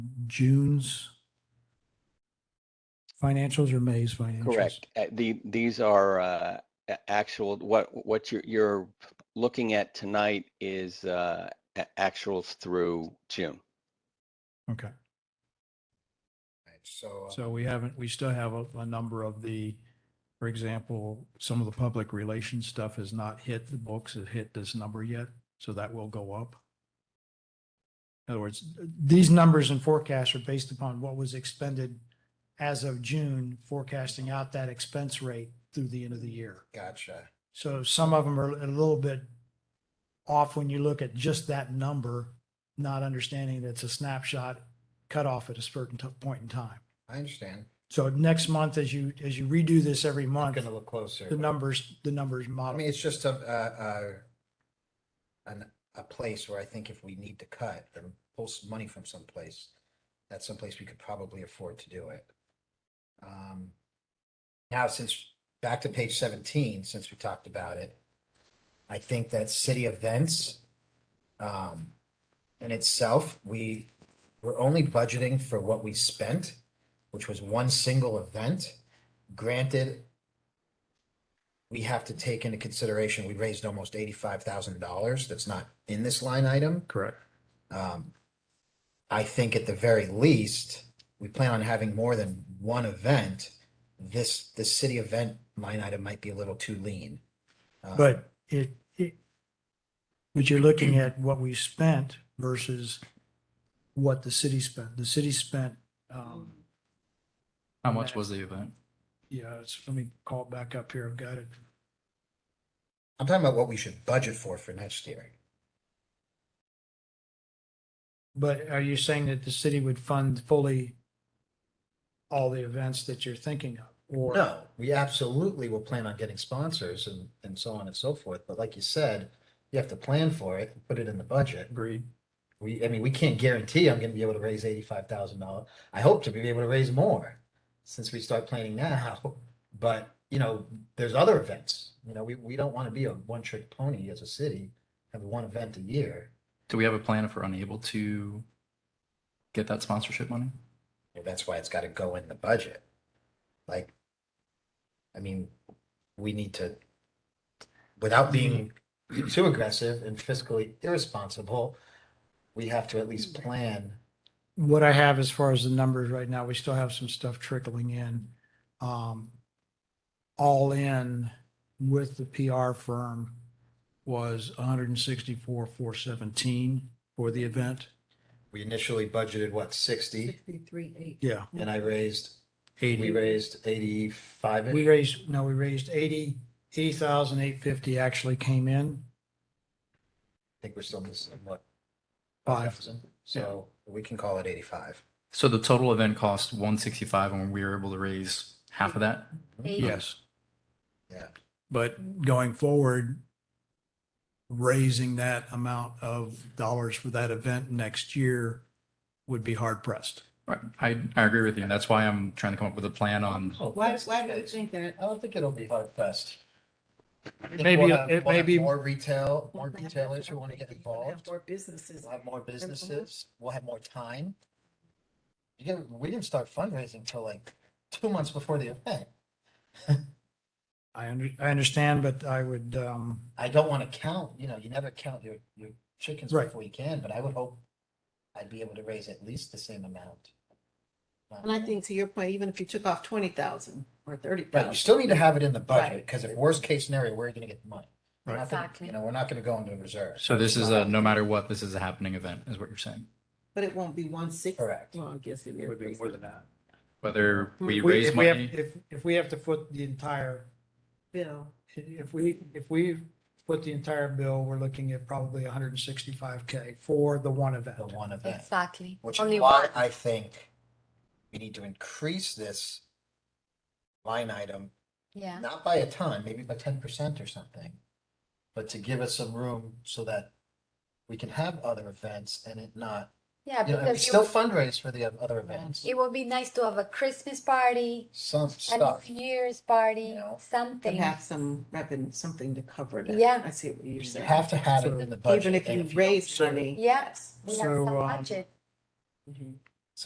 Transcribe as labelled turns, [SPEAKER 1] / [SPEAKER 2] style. [SPEAKER 1] June's financials or May's financials?
[SPEAKER 2] Correct. Uh, The, these are uh, a- actual, what, what you're, you're looking at tonight is uh, a- actuals through June.
[SPEAKER 1] Okay,
[SPEAKER 3] Right, So, uh,
[SPEAKER 1] so we haven't, we still have a, a number of the, for example, some of the public relations stuff has not hit the books, it hit this number yet, so that will go up. In other words, these numbers and forecasts are based upon what was expended as of June, forecasting out that expense rate through the end of the year.
[SPEAKER 3] gotcha.
[SPEAKER 1] So some of them are a little bit off when you look at just that number, not understanding that it's a snapshot cut off at a certain t- point in time.
[SPEAKER 3] I understand.
[SPEAKER 1] So next month, as you, as you redo this every
[SPEAKER 3] I'm
[SPEAKER 1] month,
[SPEAKER 3] gonna look closer.
[SPEAKER 1] the numbers, the numbers
[SPEAKER 3] I mean,
[SPEAKER 1] model.
[SPEAKER 3] it's just a, a, a, an, a place where I think if we need to cut or pull some money from someplace, that's someplace we could probably afford to do it. Um, Now, since, back to page seventeen, since we talked about it, I think that city events, um, in itself, we, we're only budgeting for what we spent, which was one single event. Granted, we have to take into consideration, we raised almost eighty-five thousand dollars that's not in this line item.
[SPEAKER 1] Correct.
[SPEAKER 3] Um, I think at the very least, we plan on having more than one event. This, the city event line item might be a little too lean. Uh,
[SPEAKER 1] But it, it, but you're looking at what we spent versus what the city spent. The city spent, um,
[SPEAKER 4] How
[SPEAKER 1] on
[SPEAKER 4] much
[SPEAKER 1] that.
[SPEAKER 4] was the event?
[SPEAKER 1] yeah, it's, let me call it back up here. I've got it.
[SPEAKER 3] I'm talking about what we should budget for for next year.
[SPEAKER 1] But are you saying that the city would fund fully all the events that you're thinking of? Or
[SPEAKER 3] No, we absolutely will plan on getting sponsors and, and so on and so forth. But like you said, you have to plan for it, put it in the budget.
[SPEAKER 1] agreed?
[SPEAKER 3] We, I mean, we can't guarantee I'm gonna be able to raise eighty-five thousand dollars. I hope to be able to raise more since we start planning now. But, you know, there's other events, you know, we, we don't want to be a one-trick pony as a city, have one event a year.
[SPEAKER 4] Do we have a plan if we're unable to get that sponsorship money?
[SPEAKER 3] And That's why it's got to go in the budget. Like, I mean, we need to, without being too aggressive and fiscally irresponsible, we have to at least plan.
[SPEAKER 1] What I have as far as the numbers right now, we still have some stuff trickling in. Um, all in with the PR firm was one hundred and sixty-four, four seventeen for the event.
[SPEAKER 3] We initially budgeted, what, sixty?
[SPEAKER 5] Sixty-three, eight.
[SPEAKER 1] Yeah.
[SPEAKER 3] And I raised, we
[SPEAKER 1] Eighty.
[SPEAKER 3] raised eighty-five.
[SPEAKER 1] We raised, no, we raised eighty, eighty thousand eight fifty actually came in,
[SPEAKER 3] I think we're still missing what?
[SPEAKER 1] five,
[SPEAKER 3] So we can call it eighty-five.
[SPEAKER 4] So the total event cost one sixty five, and we were able to raise half of that.
[SPEAKER 1] yes.
[SPEAKER 3] Yeah.
[SPEAKER 1] But going forward, raising that amount of dollars for that event next year would be hard pressed.
[SPEAKER 4] Right. I I agree with you, and that's why I'm trying to come up with a plan
[SPEAKER 1] Um,
[SPEAKER 4] on.
[SPEAKER 5] Oh, Why, why do you think that?
[SPEAKER 3] I don't think it'll be hard pressed.
[SPEAKER 1] Maybe- uh, it may be-
[SPEAKER 3] More retail, more retailers who want to get
[SPEAKER 5] We'll have
[SPEAKER 3] involved.
[SPEAKER 5] More businesses.
[SPEAKER 3] We'll have more businesses. We'll have more time. You get, we didn't start fundraising till like two months before the event.
[SPEAKER 1] I under, I understand, but I would, um,
[SPEAKER 3] I don't want to count, you know, you never count your, your chickens
[SPEAKER 1] Right.
[SPEAKER 3] before you can, but I would hope I'd be able to raise at least the same amount. Um,
[SPEAKER 5] And I think to your point, even if you took off twenty thousand or thirty
[SPEAKER 3] But you
[SPEAKER 5] thousand,
[SPEAKER 3] still need to have it in the budget,
[SPEAKER 5] Right.
[SPEAKER 3] because if worst case scenario, where are you gonna get the money? We're
[SPEAKER 1] Right.
[SPEAKER 3] not gonna- You know, we're not gonna go into reserves.
[SPEAKER 4] So this is a no matter what, this is a happening event, is what you're saying.
[SPEAKER 5] but it won't be one sixty.
[SPEAKER 3] Correct.
[SPEAKER 5] Well, I guess it is.
[SPEAKER 1] would be more than that.
[SPEAKER 4] Whether we
[SPEAKER 1] If
[SPEAKER 4] raise
[SPEAKER 1] if have-
[SPEAKER 4] money,
[SPEAKER 1] If, if we have to foot the entire,
[SPEAKER 5] Bill,
[SPEAKER 1] if we, if we foot the entire bill, we're looking at probably hundred and sixty-five K for the one
[SPEAKER 3] The
[SPEAKER 1] event.
[SPEAKER 3] one event,
[SPEAKER 6] Exactly.
[SPEAKER 3] which
[SPEAKER 6] Only
[SPEAKER 3] is why
[SPEAKER 6] one.
[SPEAKER 3] I think we need to increase this line item
[SPEAKER 6] Yeah.
[SPEAKER 3] not by a ton, maybe by ten percent or something. But to give us some room so that we can have other events and it not,
[SPEAKER 6] Yeah,
[SPEAKER 3] you know, and we
[SPEAKER 6] because
[SPEAKER 3] still
[SPEAKER 6] you,
[SPEAKER 3] fundraise for the other events,
[SPEAKER 6] it would be nice to have a Christmas party,
[SPEAKER 3] some
[SPEAKER 6] and
[SPEAKER 3] stuff.
[SPEAKER 6] New Year's party,
[SPEAKER 3] know.
[SPEAKER 5] and
[SPEAKER 6] something.
[SPEAKER 5] have some revenue, something to cover that.
[SPEAKER 6] Yeah.
[SPEAKER 5] I see what
[SPEAKER 3] You
[SPEAKER 5] you're saying.
[SPEAKER 3] have to have it in the budget.
[SPEAKER 5] Even if
[SPEAKER 3] and
[SPEAKER 5] you
[SPEAKER 3] don't-
[SPEAKER 5] raise money.
[SPEAKER 6] Yeah. We have
[SPEAKER 1] So,
[SPEAKER 6] some
[SPEAKER 1] um,
[SPEAKER 6] budget.
[SPEAKER 5] Mhm.